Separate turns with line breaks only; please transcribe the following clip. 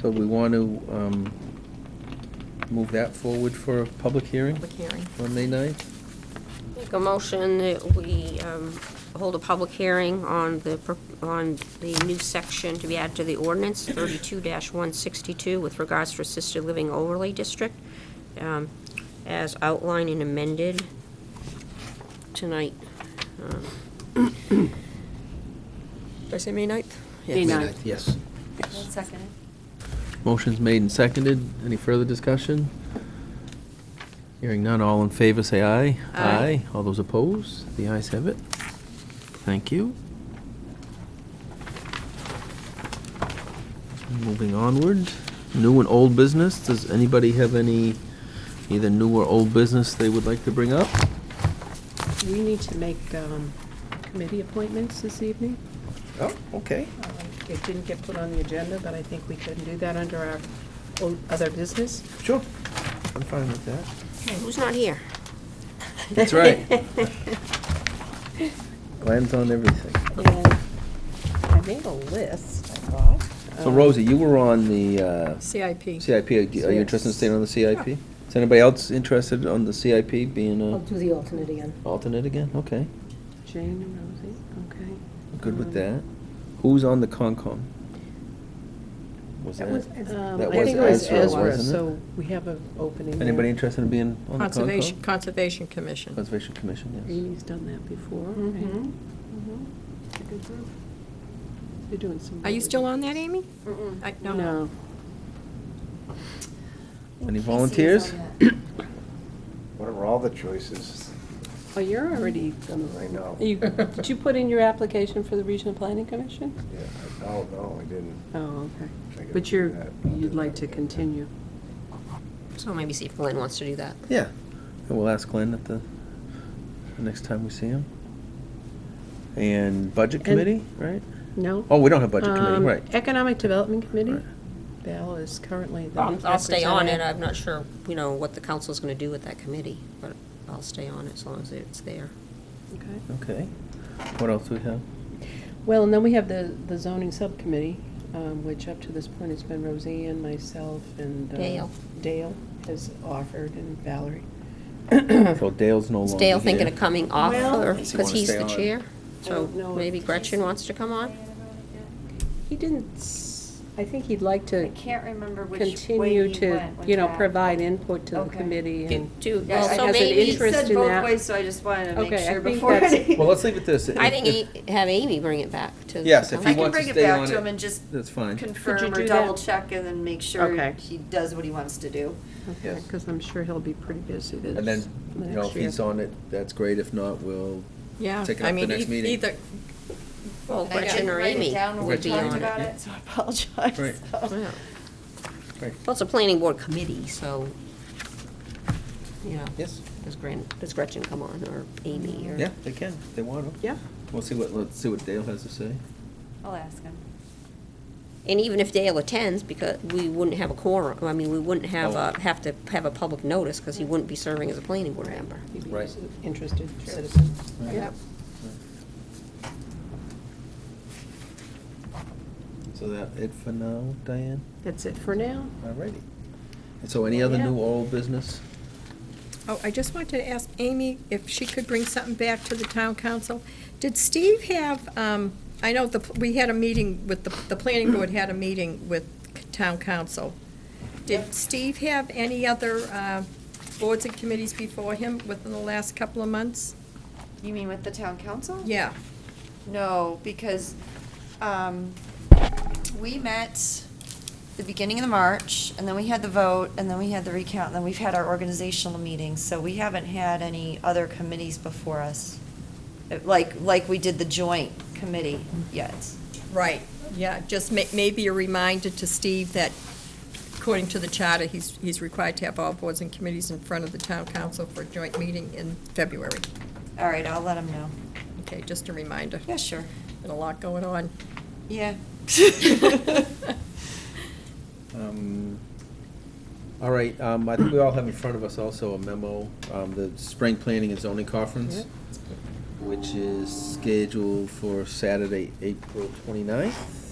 So we want to um, move that forward for a public hearing
public hearing.
on May 9th?
Make a motion that we um, hold a public hearing on the, pro- on the new section to be added to the ordinance, 32-162, with regards to assisted living overlay district, um, as outlined and amended tonight. Um,
Did I say May 9th?
May
Yes.
9th.
Yes.
Second.
Motion's made and seconded. Any further discussion? Hearing none, all in favor, say aye.
Aye.
All those opposed? The ayes have it. Thank you. Moving onward, new and old business. Does anybody have any, either new or old business they would like to bring up?
We need to make um, committee appointments this evening.
Oh, okay.
Uh, It didn't get put on the agenda, but I think we can do that under our o- other business.
Sure. I'm fine with that.
Who's not here?
That's right. Glenn's on everything.
And I made a list, I thought.
So
Um,
Rosie, you were on the uh,
CIP.
CIP. Are you are you interested in staying on the CIP? Is anybody else interested on the CIP being
I'll
a
do the alternate again.
alternate again? Okay,
Jane and Rosie, okay.
good with
Um,
that. Who's on the Concom? Was
That was,
that,
um,
that
I think it
was
was
Ezra,
Ezra,
wasn't it?
so we have an opening there.
anybody interested in being on the Concom?
Conservation, Conservation Commission.
Conservation Commission, yes.
Amy's done that before, right?
Mhm.
It's a good group. They're doing some.
Are you
really
still
good-
on that, Amy? I-
No.
Any volunteers?
What are all the choices?
Oh, you're already on the
I know.
You, did you put in your application for the Regional Planning Commission?
Yeah, I- Oh, no, I didn't.
Oh,
I
okay.
gotta
But you're,
do that.
you'd like to continue.
So maybe see if Glenn wants to do that.
Yeah, and we'll ask Glenn at the, the next time we see him. And Budget
And-
Committee, right?
No?
Oh, we don't have Budget Committee,
Um,
right.
Economic Development Committee?
Right.
Val is currently the
I'll I'll stay on it.
representative.
I'm not sure, you know, what the council's going to do with that committee, but I'll stay on it as long as it's there.
Okay.
Okay. What else do we have?
Well, and then we have the, the zoning subcommittee, um, which up to this point has been Roseanne, myself, and. uh,
Dale.
Dale has offered, and Valerie.
So Dale's no
Is
longer here.
Dale thinking of coming off,
Well-
or,
Does he
because
wanna
he's
stay
the
on?
chair?
I
So
don't know if-
maybe Gretchen wants to come on?
He didn't, s- I think he'd like to
I can't remember which way
continue
he
to,
went with
you know,
that.
provide input to the
Okay.
committee and.
Do,
Yeah,
also
I-
so
I-
has an
maybe,
He
interest
said
in
both
that.
ways, so I just wanted to make
Okay, I
sure
think
before.
that's-
any-
Well, let's leave it this.
I think he- have Amy bring it back to. the
Yes, if
I
he
council.
can
wants to
bring it
stay on
back to
it,
him and just
that's fine. Could
you
confirm
do
or
that?
double check and then make sure
Okay.
he does what he wants to do.
Yes.
Because I'm sure he'll be pretty busy this.
And then, you know,
next
if
year.
he's on it, that's great. If not, we'll,
Yeah,
Take it
I
up the
mean,
next
e-
meeting.
either,
Well,
And I
Gretchen
didn't
or
write it
Amy
down when we
would be
talked
on it.
about it, so I apologize.
Right.
So-
Yeah.
Right.
Well, it's a planning board committee, so, you know.
Yes.
Does Gren, does Gretchen come on, or Amy, or?
yeah, they can, if they want to.
Yeah,
We'll see what, let's see what Dale has to say.
I'll ask him.
And even if Dale attends, because we wouldn't have a quorum, I mean, we wouldn't have, a- have to have a public notice, because he wouldn't be serving as a planning board member.
he'd be
Right.
an interested citizen.
Right.
Yep.
So that it for now, Diane?
That's it for now.
Alrighty. And so any other new old business?
oh, I just wanted to ask Amy if she could bring something back to the town council. Did Steve have, um, I know the, we had a meeting with, the, the planning board had a meeting with town council. Did Steve have any other, uh, boards and committees before him within the last couple of months?
You mean with the town council?
Yeah.
No, because um, we met the beginning of March, and then we had the vote, and then we had the recount, and then we've had our organizational meetings, so we haven't had any other committees before us, Uh, like, like we did the joint committee yet.
Right, yeah, just ma- maybe a reminder to Steve that according to the charter, he's, he's required to have all boards and committees in front of the town council for a joint meeting in February.
All right, I'll let them know.
Okay, just a reminder.
Yeah, sure.
Been a lot going on.
Yeah.
Um, All right, um, I think we all have in front of us also a memo, um, the Spring Planning and Zoning Conference, which is scheduled for Saturday, April Um, 29th.